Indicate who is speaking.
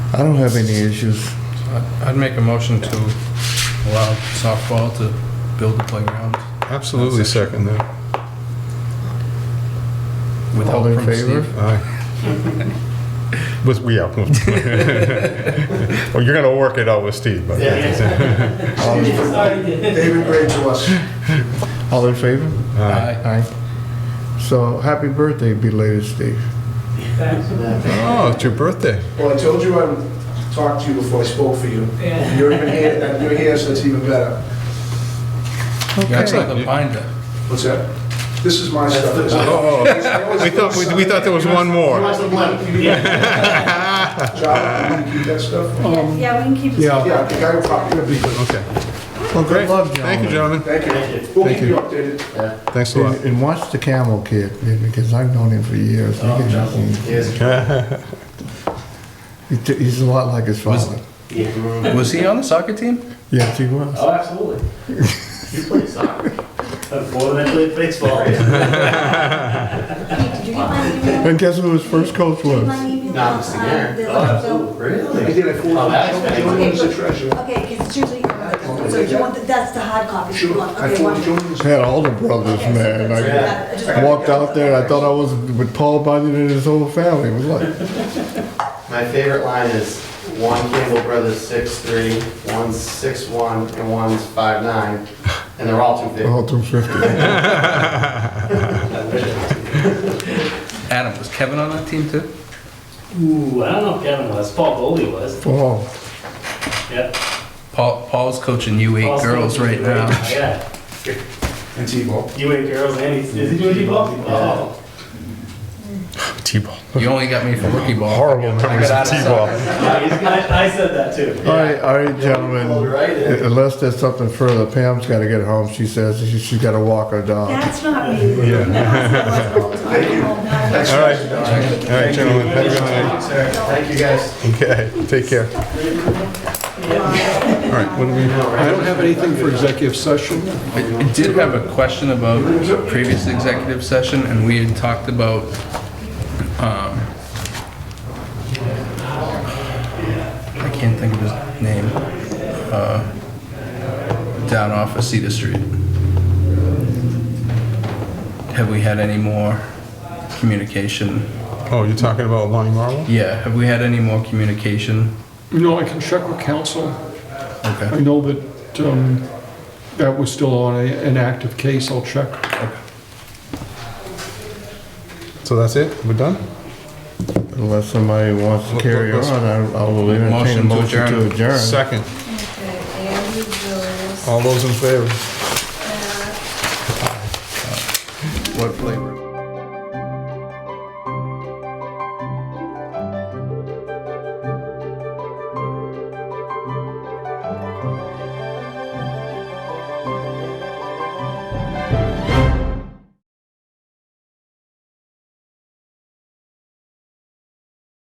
Speaker 1: I don't have any issues.
Speaker 2: I'd I'd make a motion to allow softball to build the playground
Speaker 3: Absolutely second that.
Speaker 2: with help
Speaker 1: All in
Speaker 2: from
Speaker 1: favor?
Speaker 2: Steve.
Speaker 3: Aye. With, yeah. Well, you're gonna work it out with Steve, but.
Speaker 1: All in favor?
Speaker 4: David Gray to us.
Speaker 1: All in favor?
Speaker 3: Aye.
Speaker 2: Aye.
Speaker 1: Aye. So happy birthday belated, Steve.
Speaker 3: Oh, it's your birthday.
Speaker 4: Well, I told you I would talk to you before I spoke for you.
Speaker 5: Yeah.
Speaker 4: You're even here, and you're here, so it's even better.
Speaker 2: That's like
Speaker 1: Okay.
Speaker 2: a binder.
Speaker 4: What's that? This is my stuff.
Speaker 3: Oh, we thought, we- we thought there was one more.
Speaker 4: John, you keep that stuff?
Speaker 6: Yes, yeah, we can keep it.
Speaker 7: Oh.
Speaker 1: Yeah.
Speaker 4: Yeah, I think I will probably gonna be good.
Speaker 3: Okay.
Speaker 1: Well,
Speaker 3: Great.
Speaker 1: good luck,
Speaker 3: Thank you,
Speaker 1: gentlemen.
Speaker 3: gentlemen.
Speaker 4: Thank you. We'll keep you updated.
Speaker 3: Thanks a lot.
Speaker 1: And and watch the Camel Kid, because I've known him for years.
Speaker 2: Oh,
Speaker 1: He can- he t- He's a lot like his
Speaker 2: Was-
Speaker 1: father.
Speaker 2: Was he on the soccer team?
Speaker 1: Yes, he was.
Speaker 7: Oh, absolutely. You played soccer. More than I played baseball.
Speaker 6: Did you get my email?
Speaker 1: And guess who his first coach
Speaker 6: Did you get
Speaker 1: was?
Speaker 6: my email?
Speaker 7: Not Mr. Garrett.
Speaker 6: Uh, the-
Speaker 7: Oh, absolutely.
Speaker 4: I
Speaker 7: Really?
Speaker 4: did, I
Speaker 7: Oh, that's
Speaker 4: forwarded, Julian is the treasurer.
Speaker 6: Okay, because it's usually, so you want, the- that's the hard copy you
Speaker 4: Sure,
Speaker 6: want.
Speaker 4: I
Speaker 6: Okay,
Speaker 4: forwarded
Speaker 6: wonderful.
Speaker 4: Julian.
Speaker 1: Had all the brothers, man.
Speaker 6: Okay, so that's-
Speaker 1: Like,
Speaker 6: that- I just-
Speaker 1: I walked out there, I thought I was with Paul Bunyan and his whole family. It was like,
Speaker 8: My favorite line is one Campbell Brothers six three, one's six one, and one's five nine, and they're all two fifty.
Speaker 1: all 250.
Speaker 2: Adam, was Kevin on that team too?
Speaker 7: Ooh, I don't know if Kevin was. Paul Foley was.
Speaker 1: Paul,
Speaker 7: Yep.
Speaker 2: Paul, Paul's coaching U8
Speaker 7: Paul's
Speaker 2: girls
Speaker 7: still-
Speaker 2: right now.
Speaker 7: Yeah.
Speaker 4: And T-Ball.
Speaker 7: You ain't girls and he's, is he doing T-ball? Oh.
Speaker 3: T-ball.
Speaker 2: You only got me for rookie ball.
Speaker 3: Horrible memories of T-ball.
Speaker 7: Yeah, he's- I, I said that too.
Speaker 1: All right, all right,
Speaker 8: Well,
Speaker 1: gentlemen.
Speaker 8: right, and
Speaker 1: Unless there's something further, Pam's got to get home. She says she- she's got to walk her dog.
Speaker 6: That's not me. No, that's not what's going on. No,
Speaker 3: All right. All right, gentlemen. Have a good night.
Speaker 8: thank you guys.
Speaker 3: Okay, take care. All right, what do we?
Speaker 9: I don't have anything for executive session.
Speaker 2: I I did have a question about previous executive session, and we had talked about, um, I can't think of his name, uh, down off of Cedar Street. Have we had any more communication?
Speaker 3: Oh, you're talking about Lonnie Marvel?
Speaker 2: Yeah, have we had any more communication?
Speaker 9: You know, I can check with council. I
Speaker 2: Okay,
Speaker 9: know that um, that was still on a- an active case. I'll check.
Speaker 3: So that's it? We're done?
Speaker 1: Unless somebody wants to carry on, I I will entertain a
Speaker 2: Motion to
Speaker 1: motion to
Speaker 2: adjourn.
Speaker 1: adjourn.
Speaker 3: Second.
Speaker 6: Andy Jones.
Speaker 3: All those in favor?
Speaker 1: What flavor?